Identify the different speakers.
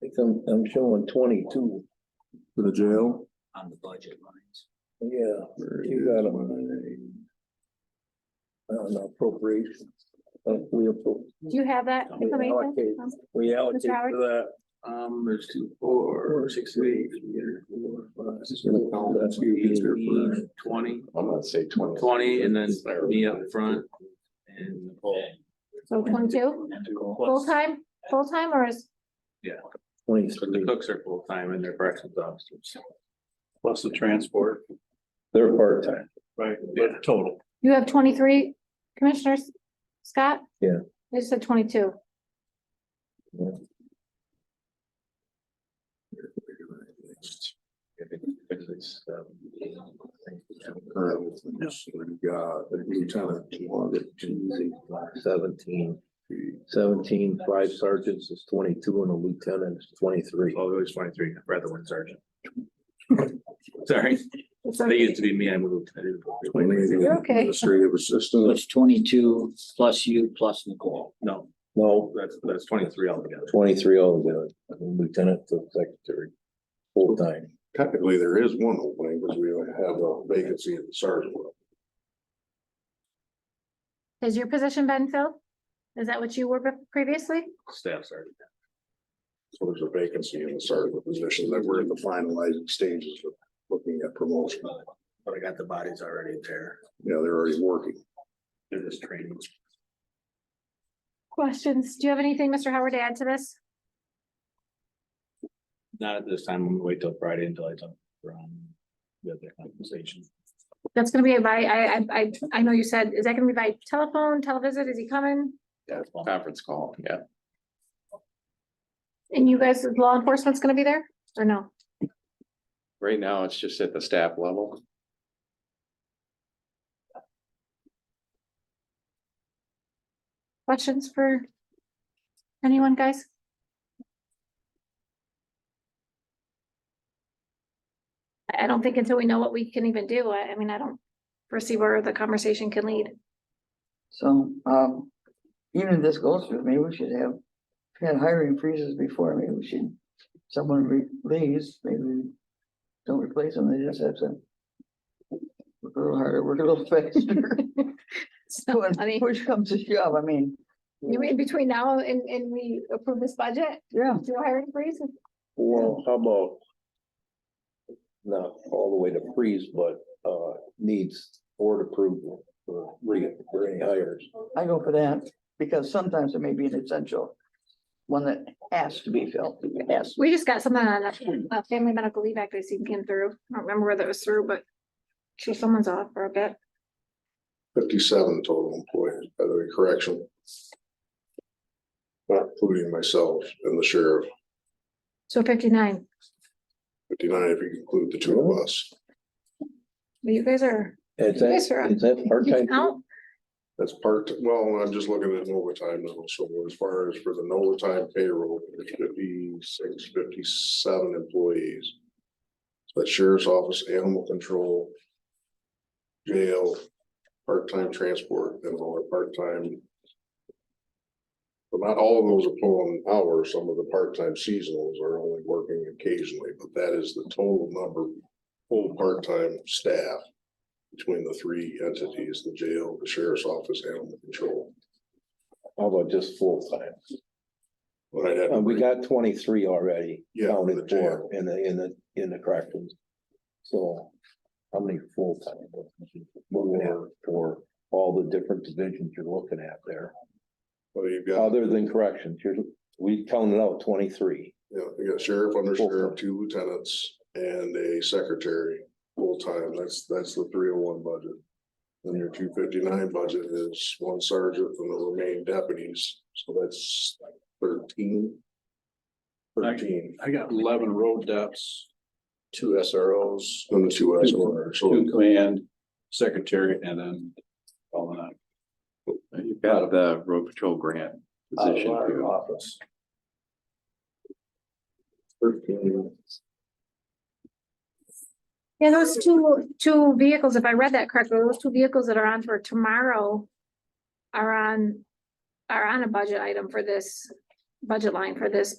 Speaker 1: think I'm, I'm showing twenty-two,
Speaker 2: for the jail.
Speaker 3: on the budget lines.
Speaker 1: yeah,
Speaker 2: Where
Speaker 1: You got
Speaker 2: is
Speaker 1: 'em. I don't know, appropriation. Uh, we appro,
Speaker 4: Do you have that
Speaker 1: Yeah,
Speaker 4: information?
Speaker 1: okay.
Speaker 4: Um,
Speaker 1: we allocate
Speaker 4: Howard?
Speaker 1: for
Speaker 2: my- Um, there's two, four, six, eight, four, five, six, seven, that's you, it's your first.
Speaker 5: Twenty,
Speaker 2: I'm gonna say twenty.
Speaker 5: twenty, and then me up front and Nicole.
Speaker 4: So twenty-two, full-time, full-time or is,
Speaker 5: But the
Speaker 1: twenty-three.
Speaker 5: cooks are full-time and they're corrections officers.
Speaker 6: Plus the transport.
Speaker 2: They're part-time.
Speaker 6: Right. Total.
Speaker 4: you have twenty-three commissioners, Scott?
Speaker 1: Yeah.
Speaker 4: You said twenty-two.
Speaker 2: God, you're trying to.
Speaker 1: Seventeen, seventeen, five sergeants is twenty-two and a lieutenant is twenty-three.
Speaker 5: Well, always Oh, twenty-three, rather one sergeant. Sorry,
Speaker 4: It's
Speaker 5: they
Speaker 4: okay.
Speaker 5: used to be me, I moved. I didn't-
Speaker 4: You're okay.
Speaker 2: Administrative
Speaker 3: So
Speaker 2: assistant.
Speaker 3: it's twenty-two plus you plus Nicole.
Speaker 5: No,
Speaker 1: No,
Speaker 5: that's, that's twenty-three altogether.
Speaker 1: twenty-three altogether, lieutenant to secretary, full-time.
Speaker 2: Technically, there is one opening, because we have a vacancy in the sergeant. level.
Speaker 4: Has your position been filled? Is that what you were be- previously?
Speaker 5: Staff sergeant.
Speaker 2: So there's a vacancy in the sergeant position that we're in the finalizing stages of looking at promotion.
Speaker 5: But I got the bodies already there.
Speaker 2: Yeah, they're already working.
Speaker 5: They're just training.
Speaker 4: Questions? Do you have anything, Mr. Howard, to add to this?
Speaker 5: Not at this time. I'm gonna wait till Friday until I talk from the other compensation.
Speaker 4: That's gonna be by, I, I, I, I know you said, is that gonna be by telephone, televisit? Is he coming?
Speaker 5: Yeah.
Speaker 7: Conference call, yeah.
Speaker 4: And you guys, law enforcement's gonna be there or no?
Speaker 7: Right now, it's just at the staff level.
Speaker 4: Questions for anyone, guys? I, I don't think until we know what we can even do, I, I mean, I don't foresee where the conversation can lead.
Speaker 8: So, um, even if this goes through, maybe we should have had hiring freezes before, maybe we should, someone re- leaves, maybe we don't replace them, they just have to work a little harder, work a little faster. So
Speaker 4: I
Speaker 8: when
Speaker 4: mean-
Speaker 8: push comes to shove, I mean,
Speaker 4: You mean between now and, and we approve this budget,
Speaker 8: yeah,
Speaker 4: do a hiring freeze?
Speaker 1: Well, how about? Not all the way to freeze, but uh needs board approval for re, for any hires.
Speaker 8: I go for that, because sometimes it may be an essential one that has to be filled, has to.
Speaker 4: We just got something on a, a family medical leave act I seen came through. I don't remember where that was through, but sure someone's off for a bit.
Speaker 2: Fifty-seven total employees, by the way, correction. Not including myself and the sheriff,
Speaker 4: So fifty-nine,
Speaker 2: fifty-nine if you include the two of us.
Speaker 4: Well, you guys are,
Speaker 1: Is
Speaker 4: Yes, sir.
Speaker 1: that, is that
Speaker 4: you
Speaker 1: part-time?
Speaker 4: count?
Speaker 2: That's part, well, I'm just looking at overtime now, so as far as for the overtime payroll, there's 56, 57 employees. But sheriff's office, animal control. Jail, part-time transport, and all are part-time. But not all of those are pulling hours, some of the part-time seasonals are only working occasionally, but that is the total number. Full part-time staff between the three entities, the jail, the sheriff's office, animal control.
Speaker 1: How about just full-time?
Speaker 2: But I'd have,
Speaker 1: Uh,
Speaker 2: to
Speaker 1: we
Speaker 2: bring-
Speaker 1: got twenty-three already
Speaker 2: yeah, for the
Speaker 1: counted
Speaker 2: jail,
Speaker 1: for in the, in the, in the corrections. So how many full-time? We're gonna have for all the different divisions you're looking at there,
Speaker 2: but you've got,
Speaker 1: other than corrections, you're, we counted out twenty-three.
Speaker 2: you know, you got sheriff, under
Speaker 1: Full-time.
Speaker 2: sheriff, two lieutenants and a secretary, full-time, that's, that's the three oh one budget. Then your two fifty-nine budget is one sergeant and the remaining deputies, so that's thirteen. Thirteen,
Speaker 6: I got eleven road depths, two SROs,
Speaker 2: and the two SROs, so
Speaker 6: two command, secretary, and then all in all.
Speaker 7: You've got the road patrol grant position
Speaker 6: Out of
Speaker 7: too.
Speaker 6: our Office.
Speaker 2: thirteen.
Speaker 4: Yeah, those two, two vehicles, if I read that correctly, those two vehicles that are on for tomorrow are on, are on a budget item for this, budget line for this